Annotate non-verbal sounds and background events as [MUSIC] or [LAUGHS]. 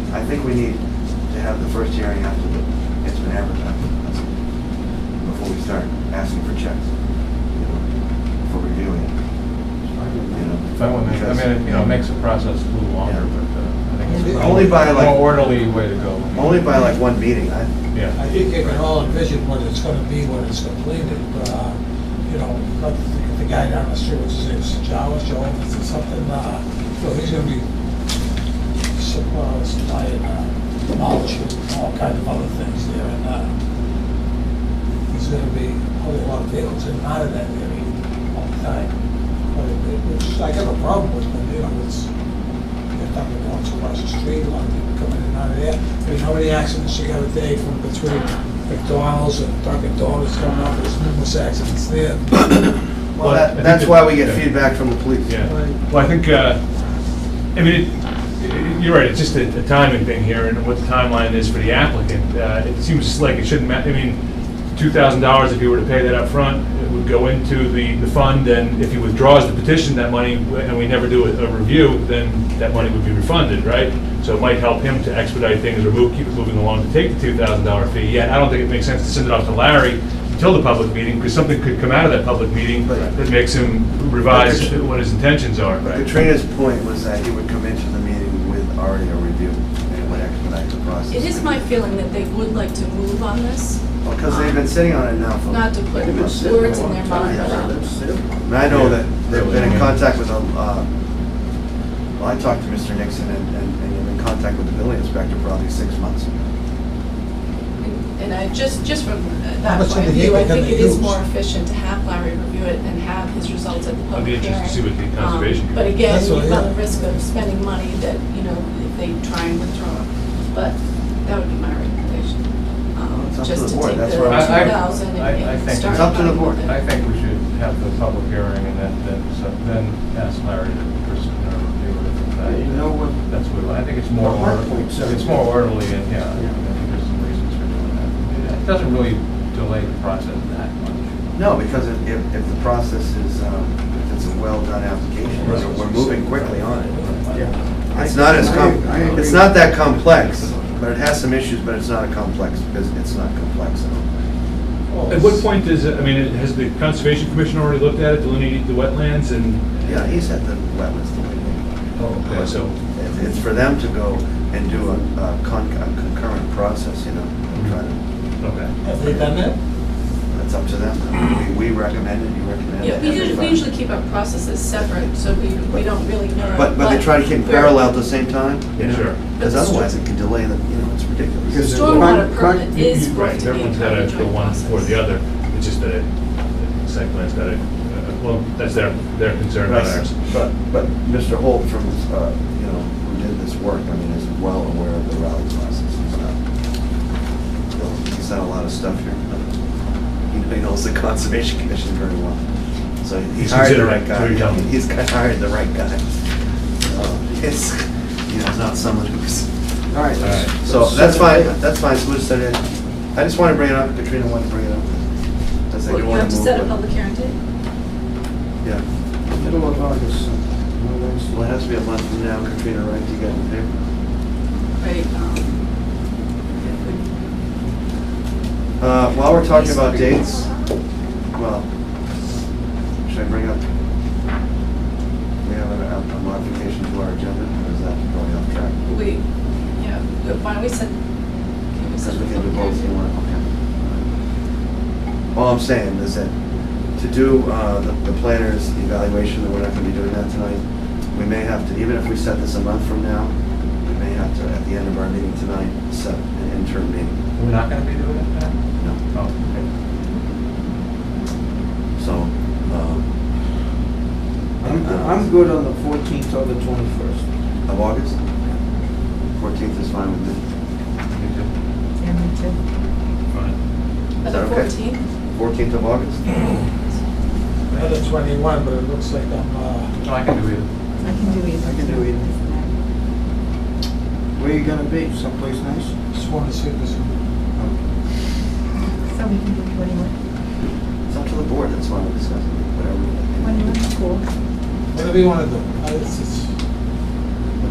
need to have the first hearing after the, it's been advertised. That's- Before we start asking for checks, you know, for reviewing, you know. That would make, I mean, it, you know, makes the process a little longer, Yeah. but uh, I think it's. Only by, like- More orderly way to go. Only by like one meeting, I, Yeah. I think they can all envision what it's gonna be when it's completed, uh, you know, but the guy down the street, what's his name, Sajawa, Joe, or something, uh, so he's gonna be surprised by, uh, knowledge of all kinds of other things there, and, uh, there's gonna be a whole lot of vehicles in and out of that area all the time. But it, it- it's, I got a problem with, it, you know, it's, they're talking once across the street, a lot of people coming in and out of there. There's how many accidents you got a day from between McDonald's and Dunkin' Donuts coming up, there's numerous accidents there. well, Well, I that- think that's it- why we get yeah. feedback from the police. Yeah, well, I think, uh, I mean, it- it- you're right, it's just a a timing thing here, and what the timeline is for the applicant. Uh, It seems like it shouldn't, ma- I mean, $2,000, if you were to pay that up front, it would go into the, the fund, and if he withdraws the petition, that money, and we never do a a review, then that money would be refunded, right? So it might help him to expedite things or move, keep it moving along to take the $2,000 fee. Yet, I don't think it makes sense to send it off to Larry until the public meeting, because something could come out of that public meeting Right. that makes him revise what his intentions are. But Katrina's point was that he would come into the meeting with already a review and it would expedite the process. It is my feeling that they would like to move on this. Because they've been sitting on it now for. Not to put words in their mouth. And I know that they've been in contact with, um, uh, well, I talked to Mr. Nixon and, and and you're in contact with the building inspector probably six months. And- And I, just, just from How that much of point the of view, gate I they're think gonna it is use? more efficient to have Larry review it and have his results at the I'd be public hearing. interested to see what the Um, conservation But committee- again, That's what you've I- got the risk of spending money that, you know, if they try and withdraw. But that would be my recommendation. Um, It's up to Just the to board. take the That's two where I'm- I- I- thousand I- I and and think start. it's up to the fighting board. with it. I think we should have the public hearing and then, then, so then ask Larry to pursue a review it. Uh, You know what? That's what, I think it's more, The hard order- points are- it's more orderly and, yeah, I Yeah. think there's some reasons for doing that. It doesn't really delay the process that much. No, because if, if, if the process is, um, if it's a well-done application, you know, we're moving quickly on it. It's not as com, it's not that complex, but it has some issues, but it's not a complex, because it's not complex at all. At what point does, I mean, has the Conservation Commission already looked at it, delineated the wetlands and? Yeah, he's at the wetlands delineation. Oh, okay, so. It's- It's for them to go and do a a con- a concurrent process, you know, and try to, Okay. Have they done that? that's up to them. We we recommend it, you recommend it. Yeah, we usually, we everybody. usually keep our processes separate, so we, we don't really know. But, but they try to keep we're- parallel at the same time, you Yeah, know? sure. Because otherwise it could delay the, you know, it's Because- ridiculous. Stormwater Con- con- permit is going Right, to be a everyone's got to joint go one process. or the other, it's just that uh, site plan's got to, well, that's their, their concern, not ours. But, but Mr. Holt from, uh, you know, who did this work, I mean, is well aware of the rally process and stuff. So, He's done a lot of stuff here. He- He knows the [LAUGHS] Conservation Commission very well. So he He's hired the right considerate, so guy. you're telling me. He's hired the right guy. Uh, It's, you know, not someone who's All right. All right. let's- So that's fine, that's fine, so we'll just set it in. I just want to bring it up, Katrina wanted to bring it up. I said, Well, you wanna have to move set a it. public hearing date. Yeah, Middle of August. so, no, that's- well, it has to be a month from now, Katrina, right, you got the paper? Right. um, Uh, While we're talking about dates, well, should I bring up? We have a a modification to our agenda, or is that going off track? We, yeah, but why don't we set? can we set Because the we can do public both, you hearing? want, okay. All I'm saying is that to do uh, the the planner's evaluation, and we're not gonna be doing that tonight, we may have to, even if we set this a month from now, we may have to, at the end of our meeting tonight, set an interim meeting. We're not going to be doing it now? No. Oh, So, um, I'm, I'm good on the 14th or the 21st. of August? Fourteenth is fine with me. okay. Me too. Yeah, me too. Fine. Uh, Is that The okay? fourteenth? Fourteenth of August? I had a twenty-one, but it looks like I'm, uh, No, I can do it. I can do either. I can do either. Where you gonna be? Someplace nice? just wanted to see if this So we can do twenty-one, It's up to the board, that's why we're discussing, whatever. twenty-one, cool. Whatever you want to do. I- Uh, It's, it's,